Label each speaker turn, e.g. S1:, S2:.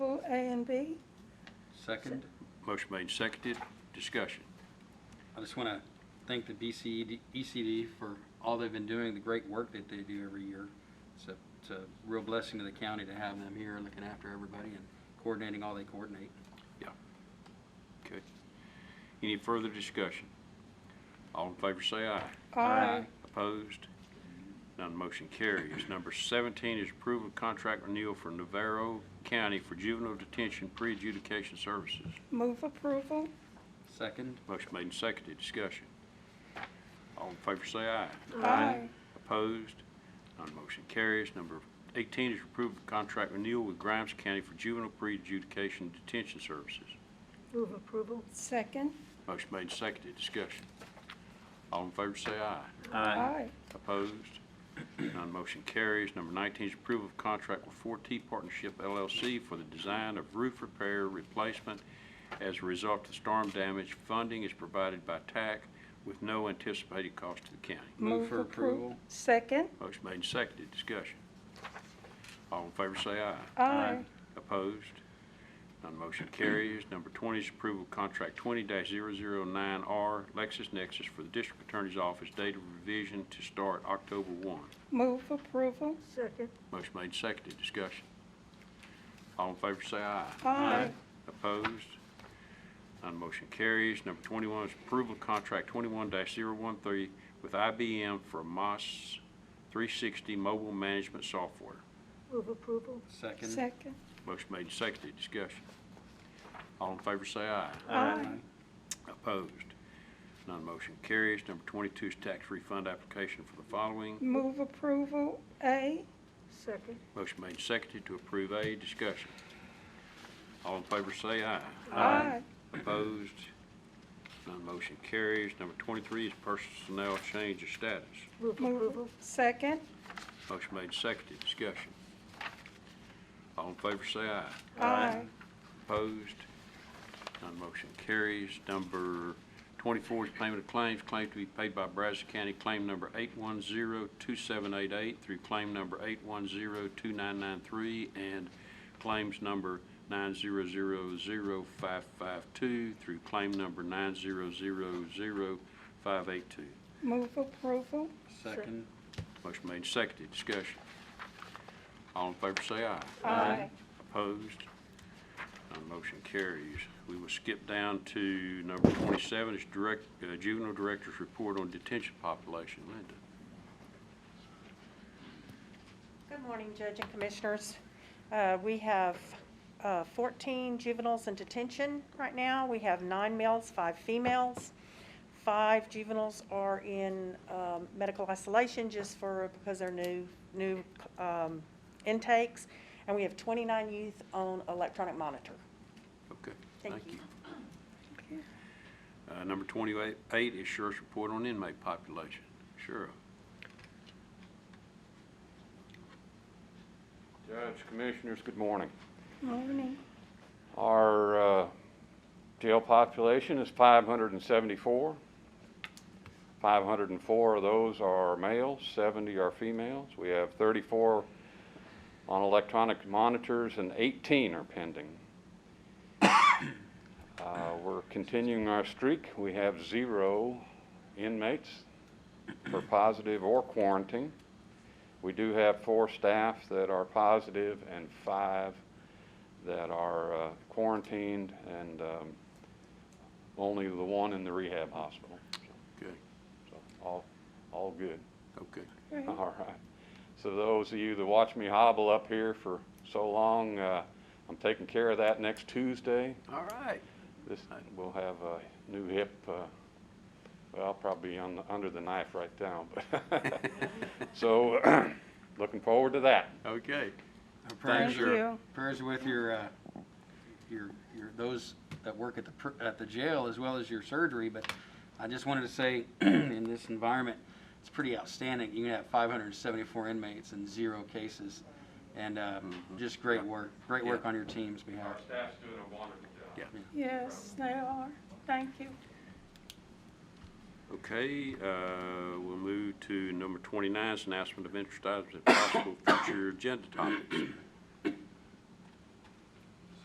S1: Second.
S2: Motion made, and seconded, discussion.
S1: I just want to thank the E BCED, ECD for all they've been doing, the great work that they do every year. It's a, it's a real blessing to the county to have them here looking after everybody and coordinating all they coordinate.
S2: Yeah. Okay. Any further discussion? All in favor say aye.
S1: Aye.
S2: Opposed? None motion carries. Number 17 is approval of contract renewal for Navarro County for juvenile detention pre-adjudication services.
S3: Move approval?
S1: Second.
S2: Motion made and seconded, discussion. All in favor say aye.
S3: Aye.
S2: Opposed? None motion carries. Number 18 is approval of contract renewal with Grimes County for juvenile pre-adjudication detention services.
S4: Move approval.
S3: Second?
S2: Motion made and seconded, discussion. All in favor say aye.
S3: Aye.
S2: Opposed? None motion carries. Number 19 is approval of contract with 4T Partnership LLC for the design of roof repair replacement as a result of storm damage. Funding is provided by TAC with no anticipated cost to the county.
S1: Move for approval.
S3: Second?
S2: Motion made and seconded. Discussion. All in favor say aye.
S3: Aye.
S2: Opposed? None motion carries. Number 20 is approval of contract 20-009R LexisNexis for the District Attorney's Office, date of revision to start October 1.
S3: Move approval?
S4: Second.
S2: Motion made, and seconded, discussion. All in favor say aye.
S3: Aye.
S2: Opposed? None motion carries. Number 21 is approval of contract 21-013 with IBM for MOS 360 mobile management software.
S4: Move approval.
S1: Second.
S3: Second?
S2: Motion made, and seconded, discussion. All in favor say aye.
S3: Aye.
S2: Opposed? None motion carries. Number 22 is tax refund application for the following.
S3: Move approval? A?
S4: Second.
S2: Motion made, and seconded to approve A, discussion. All in favor say aye.
S3: Aye.
S2: Opposed? None motion carries. Number 23 is personnel change of status.
S4: Move
S3: Move,
S4: approval.
S3: second?
S2: Motion made, seconded, discussion. All in favor say aye.
S3: Aye.
S2: Opposed? None motion carries. Number 24 is payment of claims, claim to be paid by Brazos County, claim number 8102788 through claim number 8102993 and claims number 9000552 through claim number 9000582.
S3: Move approval?
S1: Second.
S2: Motion made, and seconded, discussion. All in favor say aye.
S3: Aye.
S2: Opposed? None motion carries. We will skip down to number 27, is direct, uh, juvenile director's report on detention population. Linda?
S5: Good morning, Judge and Commissioners. Uh, We have uh, 14 juveniles in detention right now. We have nine males, five females. Five juveniles are in um, medical isolation just for, because they're new, new um, intakes. And we have 29 youth on electronic monitor.
S2: Okay,
S5: Thank
S2: thank you.
S5: you.
S2: Uh, Number 28 is sheriff's report on inmate population. Sheriff?
S6: Judge, Commissioners, good morning.
S3: Morning.
S6: Our uh, jail population is 574. 504 of those are males, 70 are females. We have 34 on electronic monitors and 18 are pending. Uh, We're continuing our streak. We have zero inmates for positive or quarantine. We do have four staff that are positive and five that are uh, quarantined and um, only the one in the rehab hospital.
S2: Okay,
S6: So all, all good.
S2: okay.
S3: Great.
S6: All right. So those of you that watch me hobble up here for so long, uh, I'm taking care of that next Tuesday.
S2: All right.
S6: This, we'll have a new hip, uh, well, I'll probably be on, the- under the knife right now. but- So, looking forward to that.
S2: Okay.
S1: Our prayers
S3: Thank
S1: are-
S3: you.
S1: Prayers are with your, uh, your, your, those that work at the, pr- at the jail as well as your surgery, but I just wanted to say, in this environment, it's pretty outstanding. You can have five hundred and seventy-four inmates and zero cases, and, uh, just great work, great work on your team's behalf.
S6: staff's doing a wonderful job.
S3: Yes, they are. Thank you.
S2: Okay, uh, we'll move to number 29, 's announcement of interest items and possible future agenda topics.